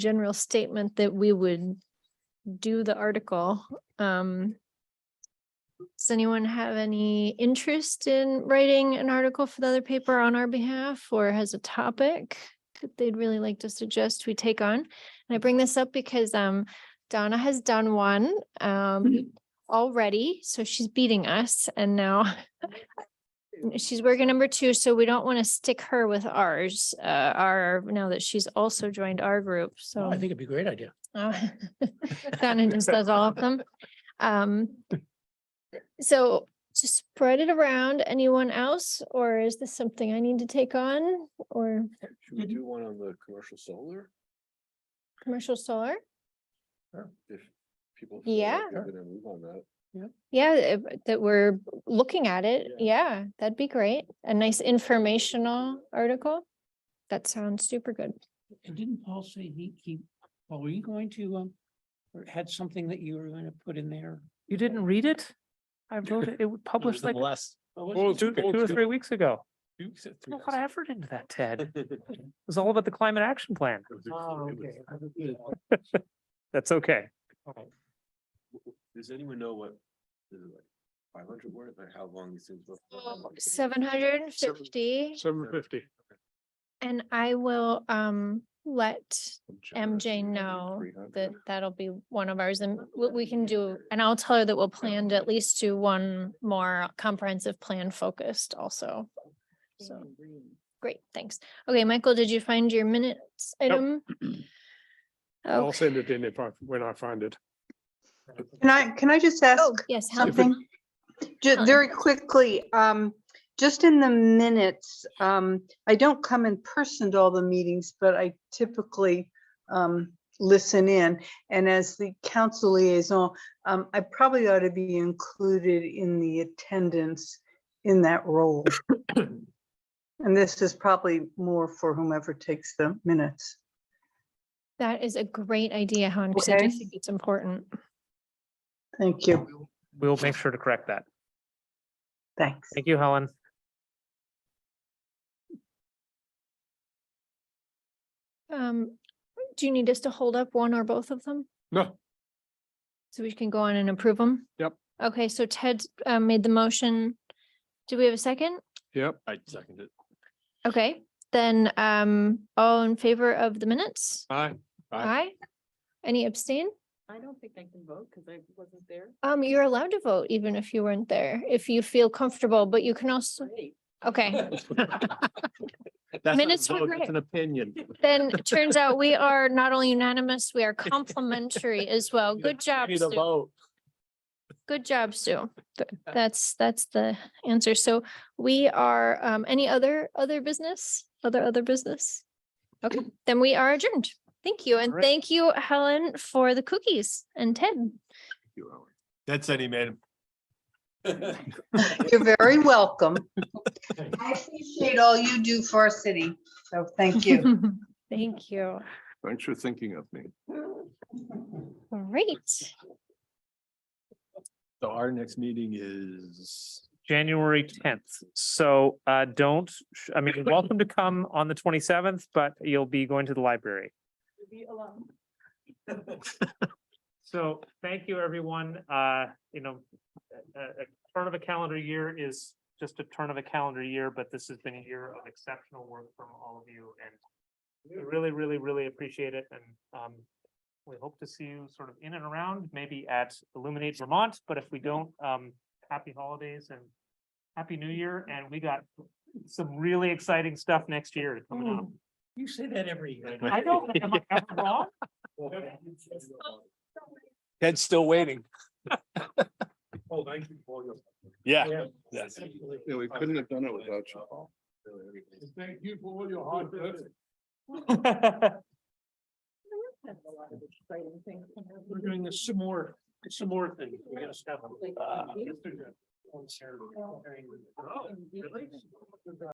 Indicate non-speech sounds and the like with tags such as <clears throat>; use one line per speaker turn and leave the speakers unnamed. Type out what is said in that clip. general statement that we would do the article. Um, Does anyone have any interest in writing an article for the other paper on our behalf or has a topic that they'd really like to suggest we take on? And I bring this up because um Donna has done one um already, so she's beating us and now <laughs> she's working number two, so we don't want to stick her with ours, uh, our, now that she's also joined our group, so.
I think it'd be a great idea.
Oh, Donna just does all of them. Um, so to spread it around, anyone else, or is this something I need to take on or
Should
Mm-hmm.
we do one on the commercial solar?
commercial solar?
If people. feel like
Yeah.
They're gonna move on <laughs> that.
Yeah, if- that we're looking at it.
Yeah.
Yeah, that'd be great. A nice informational article. That sounds super good.
And didn't Paul say he, he, Paul, were you going to, um, or had something that you were gonna put in there?
You didn't read it? I wrote it, it
<laughs>
was published like
Less.
What was
Well,
it?
two, two or three weeks ago. Put a lot of
It
effort into that, Ted.
<laughs>
It was all about the climate action plan.
Oh, okay. I was good.
That's okay.
Does anyone know what? Five hundred words or how long these things?
Seven hundred and fifty,
Seven fifty.
and I will, um, let MJ know that that'll be one of ours and what we can do, and I'll tell her that we'll plan to at least do one more comprehensive plan focused also. So, great, thanks. Okay, Michael, did you find your minutes
<clears throat>
item?
I'll
Oh,
send it in if I, when I find it.
Can I, can I just ask
yes, Helen.
Oh, something? Just
Helen.
very quickly, um, just in the minutes, um, I don't come in person to all the meetings, but I typically um, listen in. And as the council liaison, um, I probably ought to be included in the attendance in that role. And this is probably more for whomever takes the minutes.
that is a great idea, Helen, because I do
Okay.
think it's important.
Thank you.
We'll make sure to correct that.
Thanks.
Thank you, Helen.
Um, do you need us to hold up one or both of them?
No,
So we can go on and approve them?
Yep.
Okay, so Ted uh, made the motion. Do we have a second?
yep,
I seconded.
Okay, then um, all in favor of the minutes?
aye.
Aye. Any abstain?
I don't think I can vote because I wasn't there.
Um, you're allowed to vote even if you weren't there, if you feel comfortable, but you can also,
Great.
okay.
That's not a
Minutes were
vote, that's
great.
An opinion.
Then it turns out
<laughs>
we are not only unanimous, we are complimentary as well. Good job,
Need a
Sue.
vote.
Good job, Sue.
<laughs>
Th- That's, that's the answer. So we are, um, any other, other business? Other, other business? Okay, then we are adjourned. Thank you. And
All right.
thank you, Helen, for the cookies and Ted.
That's any <laughs> man.
<laughs> You're very welcome. I appreciate all you do for our city, so thank you.
<laughs> Thank you.
Thanks for thinking of me.
Great.
So our next meeting is.
January tenth. So uh, don't, sh- I mean, you're welcome to come on the twenty seventh, but you'll be going to the library.
Leave me alone.
So thank you, everyone. Uh, you know, a, a a turn of a calendar year is just a turn of a calendar year, but this has been a year of exceptional work from all of you and we really, really, really appreciate it and, um, we hope to see you sort of in and around, maybe at Illuminate Vermont, but if we don't, um, happy holidays and happy new year. And we got some really exciting stuff next year coming up.
You say that every year.
<laughs> I know, am I ever wrong?
Ted's still waiting.
Oh, thank you for your.
Yeah.
Yes.
Yeah, we couldn't have done it without you, Paul.
Thank you for all your hard work.
Kind of a lot of exciting things coming up.
We're doing this some more, some more things. We gotta stop.
Like,
Uh,
maybe-
on Saturday. Oh, really?